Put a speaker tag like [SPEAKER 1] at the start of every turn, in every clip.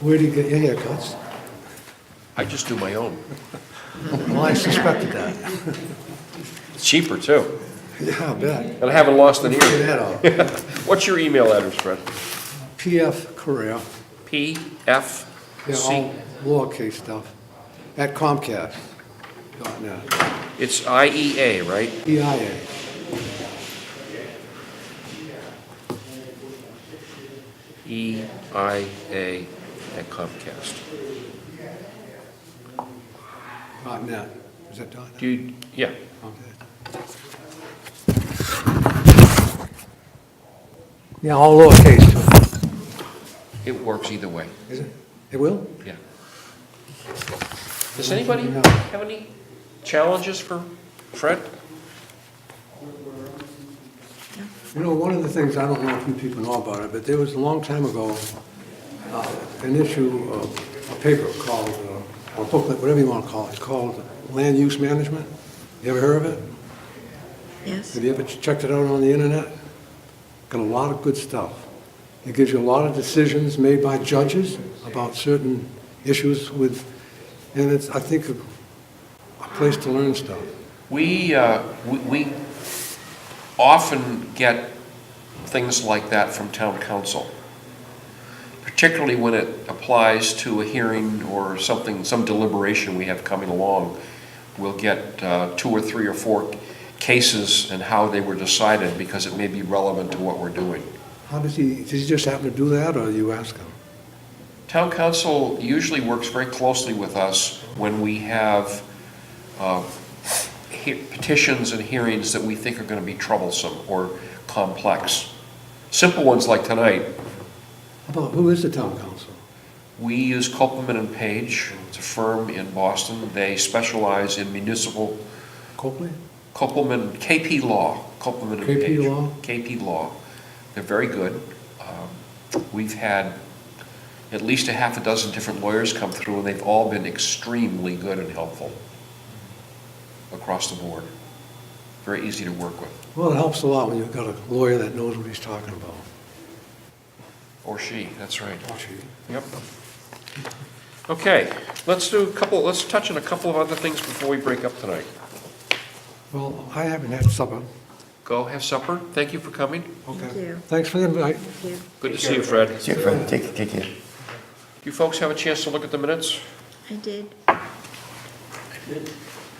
[SPEAKER 1] Where do you get your haircuts?
[SPEAKER 2] I just do my own.
[SPEAKER 1] Well, I suspected that.
[SPEAKER 2] It's cheaper, too.
[SPEAKER 1] Yeah, I bet.
[SPEAKER 2] And I haven't lost an
[SPEAKER 1] Look
[SPEAKER 2] ear.
[SPEAKER 1] at that all.
[SPEAKER 2] What's your email address, Fred?
[SPEAKER 1] PF Korea,
[SPEAKER 2] P F
[SPEAKER 1] they're
[SPEAKER 2] C.
[SPEAKER 1] all lowercase stuff, at Comcast. dot net.
[SPEAKER 2] It's I E A, right?
[SPEAKER 1] EIA.
[SPEAKER 2] E I A at Comcast.
[SPEAKER 1] dot net. Is that dot net?
[SPEAKER 2] Dude, yeah.
[SPEAKER 1] Okay. Yeah, all lowercase.
[SPEAKER 2] It works either way.
[SPEAKER 1] Is it? It will?
[SPEAKER 2] Yeah. Does anybody
[SPEAKER 1] No.
[SPEAKER 2] have any challenges for Fred?
[SPEAKER 1] You know, one of the things, I don't know if you people know about it, but there was a long time ago, uh, an issue of a paper called, uh, or booklet, whatever you want to call it, called Land Use Management. You ever heard of it?
[SPEAKER 3] Yes,
[SPEAKER 1] Have you ever checked it out on the internet? Got a lot of good stuff. It gives you a lot of decisions made by judges about certain issues with, and it's, I think, a a place to learn stuff.
[SPEAKER 2] We, uh, we- we often get things like that from town council, particularly when it applies to a hearing or something, some deliberation we have coming along. We'll get uh, two or three or four cases and how they were decided because it may be relevant to what we're doing.
[SPEAKER 1] How does he, does he just happen to do that, or you ask him?
[SPEAKER 2] Town council usually works very closely with us when we have uh, he- petitions and hearings that we think are going to be troublesome or complex. Simple ones like tonight,
[SPEAKER 1] How About, who is the town council?
[SPEAKER 2] we use Copeland and Page, it's a firm in Boston. They specialize in municipal,
[SPEAKER 1] Copley?
[SPEAKER 2] Copeland, KP Law, Copeland and
[SPEAKER 1] KP
[SPEAKER 2] Page.
[SPEAKER 1] Law?
[SPEAKER 2] KP Law. They're very good. Um, We've had at least a half a dozen different lawyers come through, and they've all been extremely good and helpful across the board. Very easy to work with,
[SPEAKER 1] Well, it helps a lot when you've got a lawyer that knows what he's talking about.
[SPEAKER 2] or she, that's right. Yep. Okay, let's do a couple, let's touch on a couple of other things before we break up tonight.
[SPEAKER 1] Well, I haven't had supper.
[SPEAKER 2] Go have supper. Thank you for coming.
[SPEAKER 1] Okay.
[SPEAKER 3] you.
[SPEAKER 1] Thanks for the invite.
[SPEAKER 3] thank you.
[SPEAKER 2] Good to see you, Fred.
[SPEAKER 4] Take care. Take, take care.
[SPEAKER 2] You folks have a chance to look at the minutes?
[SPEAKER 3] I did.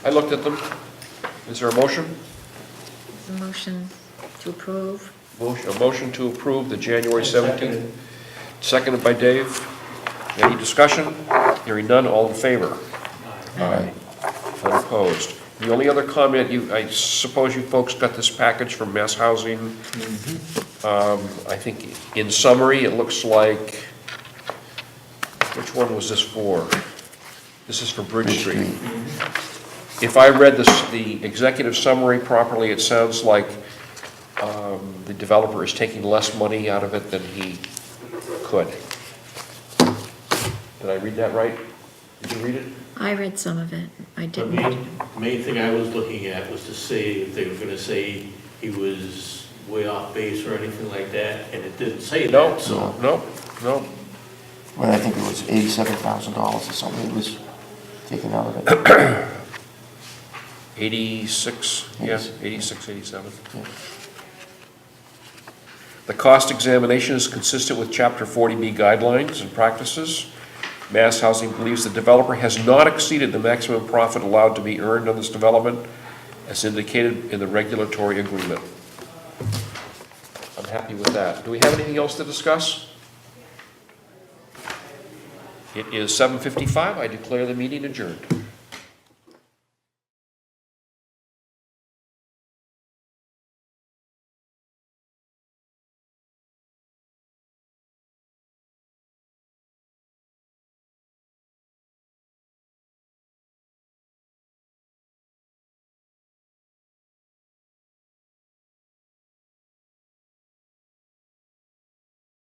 [SPEAKER 2] I looked at them. Is there a motion?
[SPEAKER 3] The motion to approve.
[SPEAKER 2] Motion, a motion to approve the January 17th, seconded by Dave. Any discussion? Hearing none, all in favor? Aye. Unopposed. The only other comment, you, I suppose you folks got this package from Mass Housing. Um, I think, in summary, it looks like, which one was this for? This is for Bridge Street. Mm-hmm. If I read this, the executive summary properly, it sounds like um, the developer is taking less money out of it than he could. Did I read that right? Did you read it?
[SPEAKER 3] I read some of it. I
[SPEAKER 5] The
[SPEAKER 3] didn't.
[SPEAKER 5] main, main thing I was looking at was to see if they were gonna say he was way off base or anything like that, and it didn't say
[SPEAKER 2] No,
[SPEAKER 5] that, so.
[SPEAKER 2] no, no.
[SPEAKER 4] Well, I think it was eighty-seven thousand dollars or something that was taken out of it.
[SPEAKER 2] 86, yeah, 86, 87.
[SPEAKER 4] Yeah.
[SPEAKER 2] The cost examination is consistent with Chapter 40B guidelines and practices. Mass Housing believes the developer has not exceeded the maximum profit allowed to be earned on this development as indicated in the regulatory agreement. I'm happy with that. Do we have anything else to discuss? It is 7:55. I declare the meeting adjourned.